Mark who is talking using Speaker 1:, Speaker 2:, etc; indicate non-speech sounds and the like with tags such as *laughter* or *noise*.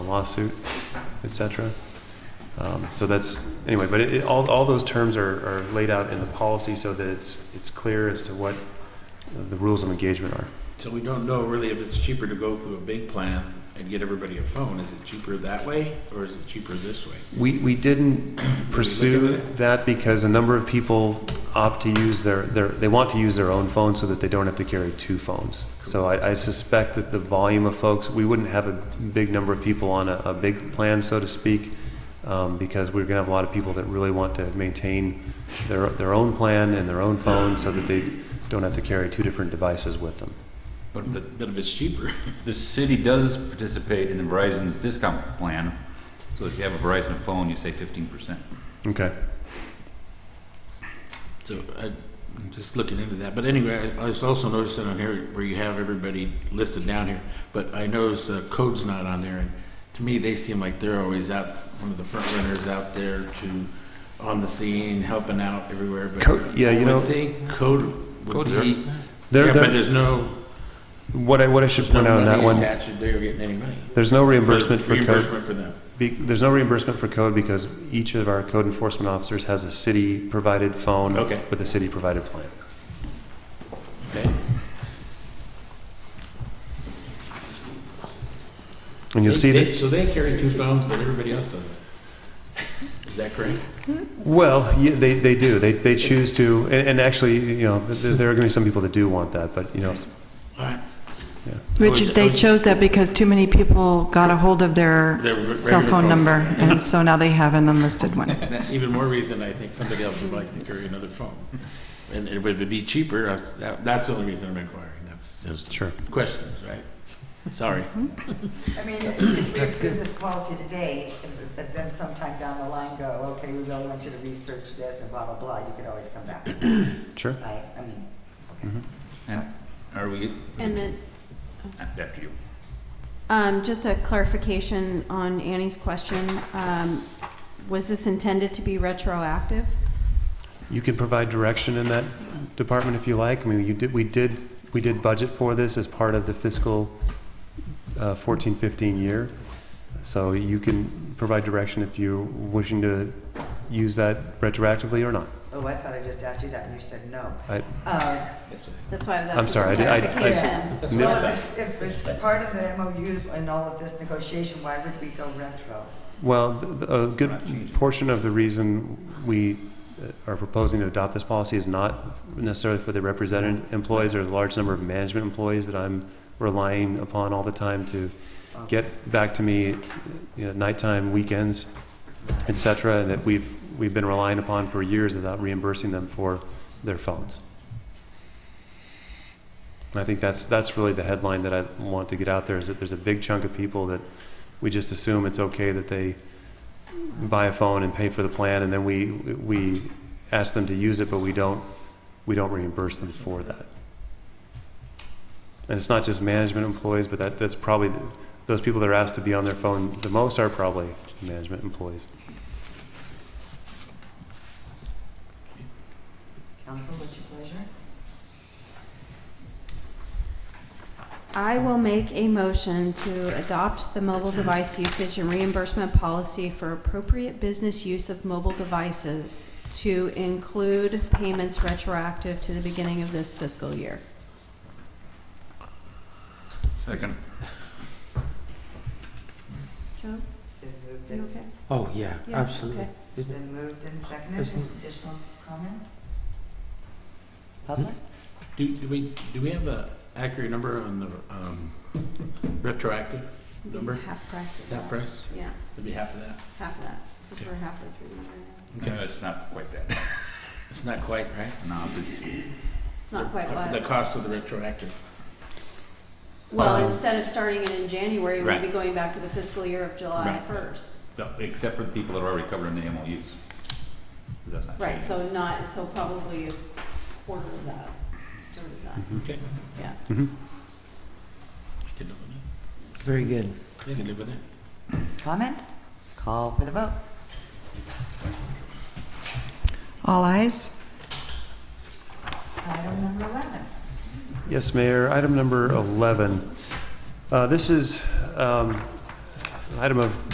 Speaker 1: lawsuit, et cetera. Um, So that's, anyway, but it, it- all, all those terms are, are laid out in the policy so that it's, it's clear as to what the rules of engagement are.
Speaker 2: So we don't know really if it's cheaper to go through a big plan and get everybody a phone. Is it cheaper that way or is it cheaper this way?
Speaker 1: We, we didn't pursue that because a number of people opt to use their, their, they want to use their own phone so that they don't have to carry two phones. So I, I suspect that the volume of folks, we wouldn't have a big number of people on a, a big plan, so to speak, um, because we're gonna have a lot of people that really want to maintain their, their own plan and their own phone so that they don't have to carry two different devices with them.
Speaker 3: But the,
Speaker 2: But, but if it's cheaper, *laughs*
Speaker 3: the city does participate in the Verizon's discount plan, so if you have a Verizon phone, you save fifteen percent.
Speaker 1: Okay.
Speaker 2: so I, I'm just looking into that. But anyway, I, I was also noticed that on here where you have everybody listed down here, but I noticed the code's not on there. And to me, they seem like they're always out, one of the front runners out there to, on the scene, helping out everywhere. But
Speaker 1: Code- yeah, you
Speaker 2: I would
Speaker 1: know-
Speaker 2: think code would
Speaker 1: There-
Speaker 2: be, yeah,
Speaker 1: there-
Speaker 2: but there's no,
Speaker 1: What I, what I should
Speaker 2: there's no
Speaker 1: point out on that
Speaker 2: money
Speaker 1: one,
Speaker 2: attached. if They're getting any money.
Speaker 1: there's no reimbursement for code.
Speaker 2: Reimbursement for them.
Speaker 1: Be- There's no reimbursement for code because each of our code enforcement officers has a city-provided phone
Speaker 2: Okay.
Speaker 1: with a city-provided plan.
Speaker 2: Okay.
Speaker 1: And you'll
Speaker 2: They-
Speaker 1: see
Speaker 2: they-
Speaker 1: that,
Speaker 2: So they carry two phones, but everybody else doesn't. Is that correct?
Speaker 1: well, yeah, they, they do. They, they choose to, and, and actually, you know, th- th- there are going to be some people that do want that, but, you know,
Speaker 2: All right.
Speaker 4: Richard,
Speaker 2: Oh,
Speaker 4: they chose that because too many people got a hold of
Speaker 2: Their re-
Speaker 4: their cell
Speaker 2: regular
Speaker 4: phone
Speaker 2: phone.
Speaker 4: number, and so now they have an unlisted one.
Speaker 2: And that's even more reason I think somebody else would like to carry another phone. And it would be cheaper. I- that- That's the only reason I'm inquiring. That's just
Speaker 1: sure.
Speaker 2: questions, right? Sorry.
Speaker 5: I mean, if we approve this policy today, but then sometime down the line go, okay, we really want you to research this and blah, blah, blah, you could always come back,
Speaker 1: Sure.
Speaker 5: right? I mean,
Speaker 3: And are we, uh,
Speaker 6: And then,
Speaker 3: after you,
Speaker 6: um, just a clarification on Annie's question, um, was this intended to be retroactive?
Speaker 1: You can provide direction in that department if you like. I mean, you did, we did, we did budget for this as part of the fiscal uh, 14, 15 year. So you can provide direction if you're wishing to use that retroactively or not.
Speaker 5: oh, I thought I just asked you that and you said no.
Speaker 1: I-
Speaker 5: Uh,
Speaker 6: That's why I was
Speaker 1: I'm
Speaker 6: asking for
Speaker 1: sorry, I did- I- I-
Speaker 6: clarification.
Speaker 2: That's what I
Speaker 5: Well,
Speaker 2: thought.
Speaker 5: if if it's part of the MOUs and all of this negotiation, why would we go retro?
Speaker 1: Well, th- th- a
Speaker 3: We're not changing.
Speaker 1: good portion of the reason we uh, are proposing to adopt this policy is not necessarily for the represented
Speaker 3: Mm-hmm.
Speaker 1: employees. There's a large number of management employees that I'm relying upon all the time to
Speaker 5: Um,
Speaker 1: get back to me, you know, nighttime, weekends, et cetera, that we've, we've been relying upon for years without reimbursing them for their phones. And I think that's, that's really the headline that I want to get out there, is that there's a big chunk of people that we just assume it's okay that they buy a phone and pay for the plan, and then we, we ask them to use it, but we don't, we don't reimburse them for that. And it's not just management employees, but that, that's probably, the- those people that are asked to be on their phone the most are probably management employees.
Speaker 5: Council, what's your pleasure?
Speaker 6: I will make a motion to adopt the mobile device usage and reimbursement policy for appropriate business use of mobile devices to include payments retroactive to the beginning of this fiscal year.
Speaker 3: second,
Speaker 6: Joe,
Speaker 5: Been moved
Speaker 6: you
Speaker 5: and,
Speaker 6: okay?
Speaker 7: Oh, yeah,
Speaker 6: Yeah,
Speaker 7: absolutely.
Speaker 6: okay.
Speaker 5: been moved and seconded,
Speaker 7: Isn't-
Speaker 5: additional comments? Public?
Speaker 2: Do, do we, do we have a accurate number on the, um, retroactive number?
Speaker 6: Half price of
Speaker 2: That price?
Speaker 6: Yeah,
Speaker 2: It'd be half of that.
Speaker 6: half of that, because we're halfway through the year now.
Speaker 3: no, it's not quite that,
Speaker 2: *laughs* It's not quite, right?
Speaker 3: no, this,
Speaker 6: It's not quite
Speaker 2: The
Speaker 6: what,
Speaker 2: cost of the retroactive.
Speaker 6: well, instead of starting it in January, we'd
Speaker 3: Right.
Speaker 6: be going back to the fiscal year of July
Speaker 2: Right.
Speaker 6: first.
Speaker 3: no, except for the people that are already covered in the MOUs. That's not
Speaker 6: Right,
Speaker 3: changing.
Speaker 6: so not, so probably a quarter of that, third of that,
Speaker 2: Okay.
Speaker 6: yeah.
Speaker 2: I can live with
Speaker 7: Very good.
Speaker 2: that. I can live with that.
Speaker 5: Comment? Call for the vote.
Speaker 4: All eyes.
Speaker 5: Item number 11.
Speaker 1: Yes, Mayor. Item number 11. Uh, This is um, Item of